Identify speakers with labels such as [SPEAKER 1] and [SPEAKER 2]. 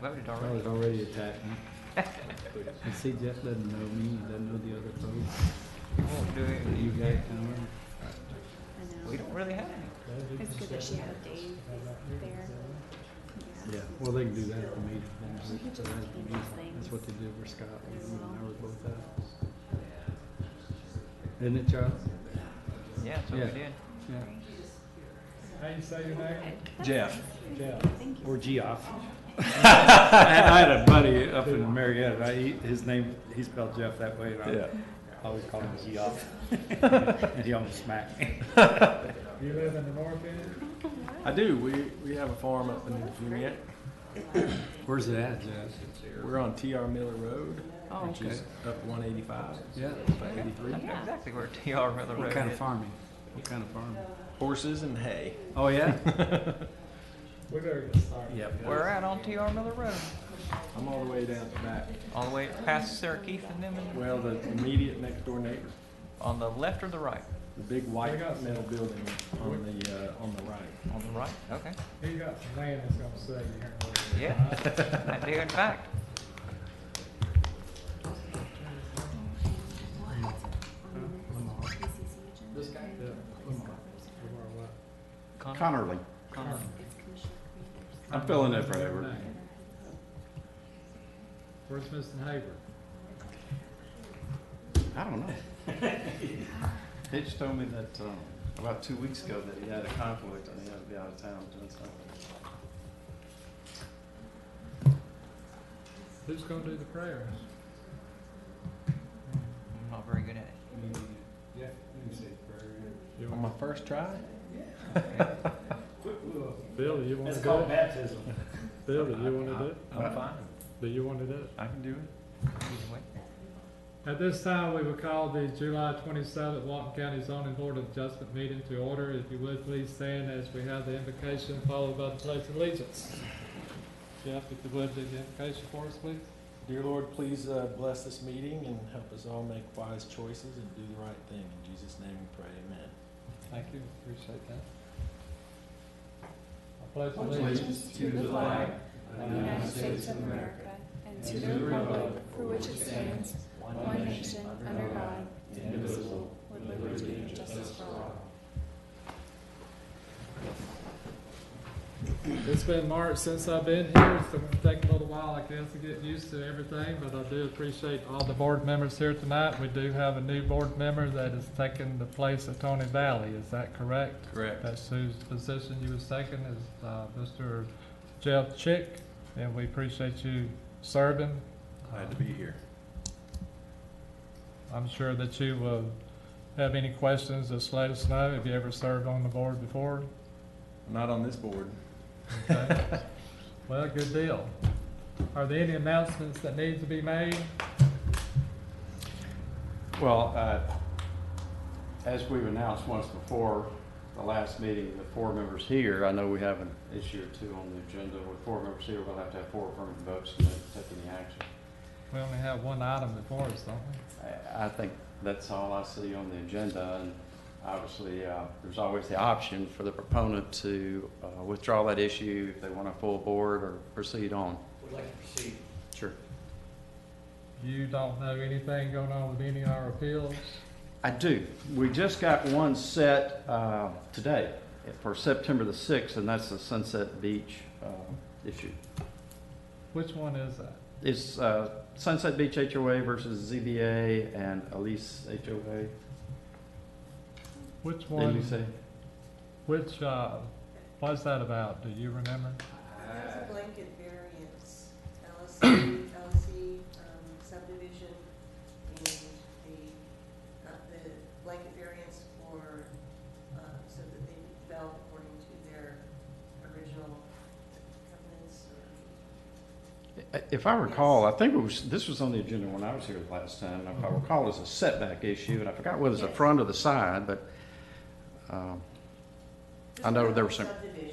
[SPEAKER 1] voted
[SPEAKER 2] I was
[SPEAKER 1] already.
[SPEAKER 2] already attacking. And see, Jeff doesn't know me, he doesn't know the other folks
[SPEAKER 1] Won't do
[SPEAKER 2] that you
[SPEAKER 1] it.
[SPEAKER 2] guys know.
[SPEAKER 1] We don't really have any.
[SPEAKER 3] It's good that she had Dave there.
[SPEAKER 2] Yeah, well, they can do that at the meeting.
[SPEAKER 3] She could
[SPEAKER 2] So
[SPEAKER 3] just
[SPEAKER 2] that's
[SPEAKER 3] keep
[SPEAKER 2] the
[SPEAKER 3] these
[SPEAKER 2] meeting. That's what they
[SPEAKER 3] things.
[SPEAKER 2] did for Scott, and
[SPEAKER 3] as
[SPEAKER 2] you and I
[SPEAKER 3] well.
[SPEAKER 2] were both out. Isn't it, Charles?
[SPEAKER 1] Yeah, that's what
[SPEAKER 2] Yeah.
[SPEAKER 1] we did.
[SPEAKER 2] Yeah.
[SPEAKER 4] How you say your name?
[SPEAKER 2] Jeff.
[SPEAKER 4] Jeff.
[SPEAKER 3] Thank you.
[SPEAKER 2] Or Geoff. I had a buddy up in Marietta, I, he- his name, he spelled Jeff that way, and I always called him Geoff. And he almost smacked me.
[SPEAKER 4] You live in the north end?
[SPEAKER 5] I do. We we have a farm up in Juniette.
[SPEAKER 2] Where's it at, Jeff?
[SPEAKER 5] We're on T.R. Miller Road,
[SPEAKER 1] Oh,
[SPEAKER 5] which is up 185,
[SPEAKER 2] Yeah.
[SPEAKER 5] about 83.
[SPEAKER 1] I know exactly where TR Miller
[SPEAKER 2] What
[SPEAKER 1] Road
[SPEAKER 2] kind of
[SPEAKER 1] is.
[SPEAKER 2] farming? What kind of farming?
[SPEAKER 5] Horses and hay.
[SPEAKER 2] Oh, yeah?
[SPEAKER 4] We better get started.
[SPEAKER 5] Yep.
[SPEAKER 1] We're at on TR Miller Road,
[SPEAKER 5] I'm all the way down the back.
[SPEAKER 1] all the way past Sarah Keith and them, and
[SPEAKER 5] Well, the immediate next door neighbor,
[SPEAKER 1] on the left or the right?
[SPEAKER 5] the big white metal building on the uh, on the right.
[SPEAKER 1] On the right, okay.
[SPEAKER 4] He got some land that's gonna sell you here.
[SPEAKER 1] Yeah, I do in fact.
[SPEAKER 3] This guy?
[SPEAKER 1] Connor.
[SPEAKER 6] Connerly.
[SPEAKER 1] Connor.
[SPEAKER 6] I'm filling in for Edward.
[SPEAKER 4] Where's Mr. Haber?
[SPEAKER 6] I don't know. They just told me that, um, about two weeks ago that he had a conflict and he had to be out of town doing something.
[SPEAKER 4] Who's gonna do the prayers?
[SPEAKER 1] I'm not very good at it.
[SPEAKER 4] Yeah, you say prayer. You
[SPEAKER 5] On my first try,
[SPEAKER 4] want- Billy, you wanna do it?
[SPEAKER 2] baptism.
[SPEAKER 3] Uh,
[SPEAKER 4] Billy, you wanna do it?
[SPEAKER 5] I'm fine.
[SPEAKER 4] Do you wanna do it?
[SPEAKER 5] I can do it.
[SPEAKER 1] Either way.
[SPEAKER 4] At this time, we will call the July twenty-seventh Walton County zoning board of adjustment meeting to order. If you would, please stand as we have the invocation followed by the pledge of allegiance. Jeff, if you would, do the invocation for us, please.
[SPEAKER 5] Dear Lord, please uh, bless this meeting and help us all make wise choices and do the right thing. In Jesus' name we pray. Amen.
[SPEAKER 4] Thank you, appreciate that. I pledge allegiance
[SPEAKER 3] to the flag of the United States of America and to the republic for which it stands, one nation, under God, indivisible, with liberty and justice for all.
[SPEAKER 4] It's been March since I've been here. It's gonna take a little while, I guess, to get used to everything, but I do appreciate all the board members here tonight. We do have a new board member that is taking the place of Tony Valley, is that correct?
[SPEAKER 5] Correct.
[SPEAKER 4] That's whose position you were second is, uh, Mr. Jeff Chick, and we appreciate you serving.
[SPEAKER 5] Glad to be here.
[SPEAKER 4] I'm sure that you will have any questions, just let us know. Have you ever served on the board before?
[SPEAKER 5] Not on this board.
[SPEAKER 4] Okay. Well, good deal. Are there any announcements that need to be made?
[SPEAKER 6] Well, uh, as we've announced once before, the last meeting, the four members here, I know we have an issue or two on the agenda. With four members here, we'll have to have four affirmative votes to take any action.
[SPEAKER 4] We only have one item before us, don't we?
[SPEAKER 6] I, I think that's all I see on the agenda, and obviously, uh, there's always the option for the proponent to, uh, withdraw that issue if they want a full board or proceed on.
[SPEAKER 7] We'd like to proceed.
[SPEAKER 6] Sure.
[SPEAKER 4] You don't know anything going on with any of our appeals?
[SPEAKER 6] I do. We just got one set, uh, today for September the sixth, and that's the Sunset Beach, uh, issue.
[SPEAKER 4] Which one is that?
[SPEAKER 6] It's, uh, Sunset Beach HOA versus ZBA and Elise HOA.
[SPEAKER 4] Which
[SPEAKER 6] Didn't you
[SPEAKER 4] one,
[SPEAKER 6] say?
[SPEAKER 4] which, uh, what's that about? Do you remember?
[SPEAKER 8] There's a blanket variance, E, LSC, LC um, subdivision, and the, uh, the blanket variance for, uh, so that they develop according to their original covenants or.
[SPEAKER 6] If I recall, I think it was, this was on the agenda when I was here the last time, and if I recall, it was a setback issue, and I forgot whether it's the
[SPEAKER 8] Yes.
[SPEAKER 6] front or the side, but, um, I know there were some-
[SPEAKER 8] Subdivision.